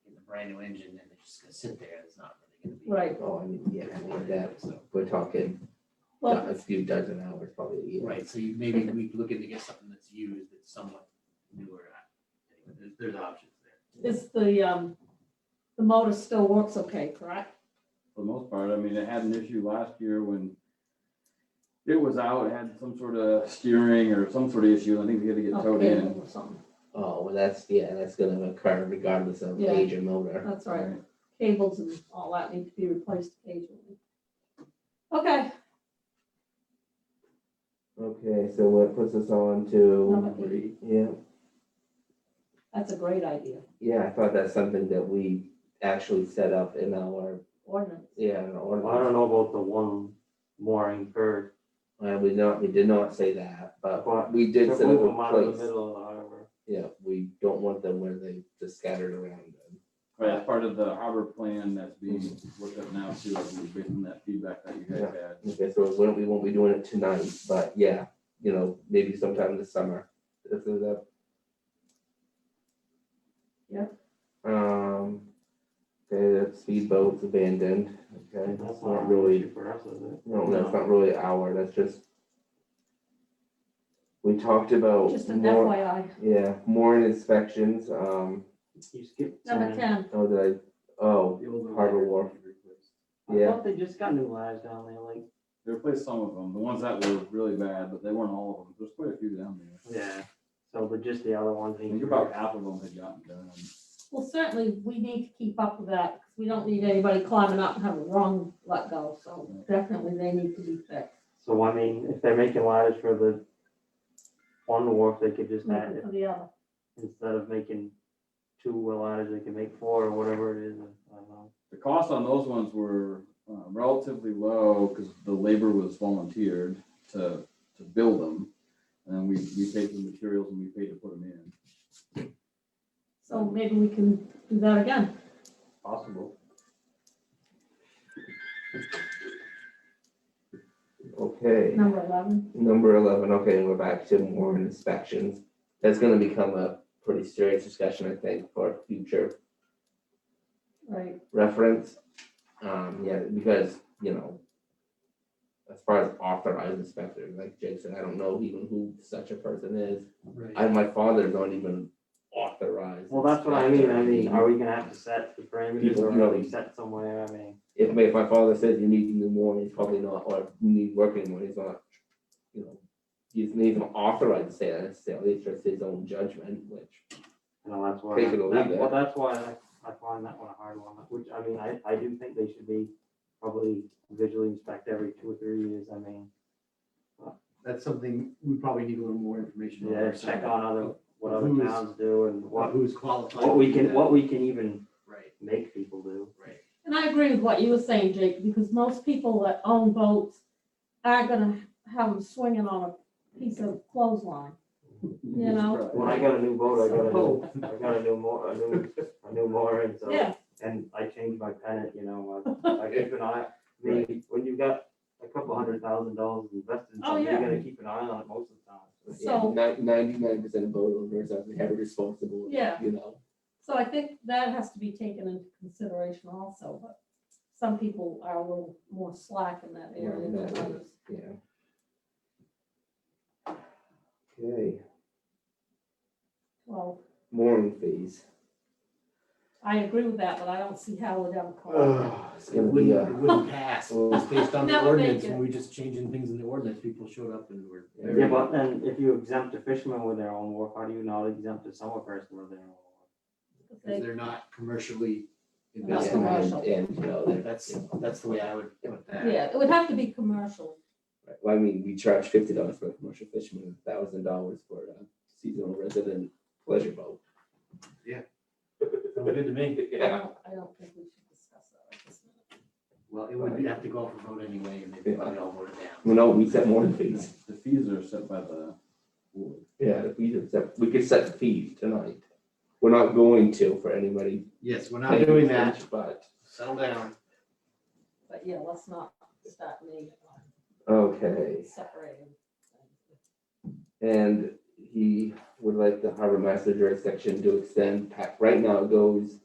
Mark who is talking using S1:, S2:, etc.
S1: brand new engine and it's just gonna sit there, it's not really gonna be.
S2: Right,
S3: Oh, I mean, yeah, I mean, that,
S1: So,
S3: we're talking do-
S2: well,
S3: a few dozen hours probably a year.
S1: right, so you, maybe we could look into get something that's used, that's somewhat newer. I- anyway, There's, there's options there.
S2: is the, um, the motor still works okay, correct?
S4: for the most part. I mean, it had an issue last year when it was out, it had some sort of steering or some sort of issue. I think we had to get towed
S2: Okay,
S4: in.
S2: or something.
S3: Oh, well, that's, yeah, that's gonna occur regardless of
S2: Yeah.
S3: age or motor.
S2: That's right, cables and all that need to be replaced occasionally. Okay,
S3: Okay, so what puts us on to,
S2: Number eight.
S3: yeah,
S2: that's a great idea,
S3: yeah, I thought that's something that we actually set up in our,
S2: ordinance.
S3: yeah, in our
S5: Well, I
S3: ordinance.
S5: don't know about the one mooring per,
S3: Uh, we not, we did not say that, but
S5: But
S3: we
S5: move
S3: did set up
S5: them out
S3: a
S5: of the
S3: place.
S5: middle of the harbor.
S3: Yeah, we don't want them where they just scattered around.
S4: Right, that's part of the harbor plan that's being worked up now too, I think, based on that feedback that you guys
S3: Yeah.
S4: had.
S3: Okay, so we won't, we won't be doing it tonight, but yeah, you know, maybe sometime this summer. This is up.
S2: Yeah.
S3: Um, okay, that speedboat's abandoned, okay,
S5: That's
S3: that's
S5: not
S3: not
S5: really
S3: really,
S5: issue for us, is it?
S3: no, that's not really our, that's just. We talked about
S2: Just an
S3: more,
S2: FYI,
S3: yeah, more inspections, um,
S5: You skipped
S2: number
S5: ten.
S2: ten,
S3: oh, did I, oh,
S4: The old
S3: Harbor
S4: ones
S3: Wharf.
S4: we replaced.
S5: I
S3: yeah,
S5: thought they just got new lives down there, like,
S4: They replaced some of them, the ones that were really bad, but they weren't all of them. There's quite a few down there.
S5: yeah, so, but just the other ones.
S4: I think about half of them had gotten done.
S2: well, certainly, we need to keep up with that, 'cause we don't need anybody climbing up and having wrong let go, so definitely they need to be fixed.
S5: So, I mean, if they're making lives for the one wharf, they could just add,
S2: For the other,
S5: instead of making two lives, they can make four or whatever it is, I don't know.
S4: The costs on those ones were uh, relatively low because the labor was volunteered to, to build them. And then we, we paid for the materials and we paid to put them in.
S2: so maybe we can do that again.
S4: Possible.
S3: okay.
S2: Number eleven,
S3: Number eleven, okay, and we're back to more inspections. That's gonna become a pretty serious discussion, I think, for future
S2: right,
S3: reference. Um, yeah, because, you know, as far as authorized inspectors, like Jake said, I don't know even who such a person is. I, my father's not even authorized.
S5: Well, that's what I mean, I mean,
S3: inspector.
S5: are we gonna have to set the parameters
S3: People
S5: or are
S3: really-
S5: we set somewhere, I mean?
S3: If, if my father says you need to do more, he's probably not, or you need working more, he's not, you know, he's not even authorized to say that necessarily, it's just his own judgment, which
S5: You know, that's why,
S3: Take it or leave
S5: that-
S3: it.
S5: well, that's why I, I find that one a hard one, which, I mean, I, I do think they should be probably visually inspect every two or three years, I mean,
S6: that's something we probably need a little more information on.
S5: yeah,
S6: our
S5: check
S6: side.
S5: on other, what other
S6: Who's-
S5: towns do and what,
S6: Who's qualified?
S5: what we
S6: to do
S5: can,
S6: that.
S5: what we can even
S6: Right,
S5: make people do.
S6: right.
S2: and I agree with what you were saying, Jake, because most people that own boats are gonna have them swinging on a piece of clothesline. You know?
S5: When I got a new boat, I got a
S6: Oh.
S5: new, I got a new more, a new, a new mooring, so.
S2: Yeah,
S5: and I changed my pennant, you know, I, I keep an eye, I mean, when you've got a couple hundred thousand dollars invested, in
S2: Oh,
S5: something,
S2: yeah.
S5: you're gonna keep an eye on it most of the time.
S2: So-
S3: Ninety-nine percent of boat owners are very responsible.
S2: Yeah.
S3: You know,
S2: so I think that has to be taken into consideration also, but some people are a little more slack in that area
S3: Right,
S2: than
S3: that
S2: others.
S3: yeah. Okay,
S2: Well,
S3: mooring fees.
S2: I agree with that, but I don't see how we'd ever call it.
S3: It's
S6: It
S3: gonna be
S5: uh,
S3: uh,
S6: wouldn't,
S3: a,
S6: it wouldn't pass, it's based on the
S2: Never
S6: ordinance,
S2: make
S6: and we just changing things in the ordinance, people showed up and were.
S3: Yeah,
S5: Yeah,
S6: very-
S5: but then if you exempt a fisherman with their own wharf, how do you not exempt a summer person with their own wharf?
S6: Because they're not commercially
S2: Not
S6: invested.
S2: commercial.
S3: investment and, you know, they're-
S6: That's, that's the way I would put that.
S2: Yeah, it would have to be commercial,
S3: well, I mean, we charge fifty dollars for a commercial fisherman, thousand dollars for a seasonal resident pleasure boat.
S6: Sounds good to me.
S2: I don't, I don't think we should discuss that at this minute.
S6: Well, it would have to go up for vote anyway, and they probably all voted down.
S3: Well, no, we set mooring fees.
S4: The fees are set by the board.
S3: Yeah, if we could set, we could set the fees tonight. We're not going to for anybody.
S6: Yes, we're not doing that,
S3: But,
S6: settle down.
S2: But yeah, let's not start naming,
S3: okay.
S2: separating.
S3: And he would like the harbor master jurisdiction to extend, pa- right now it goes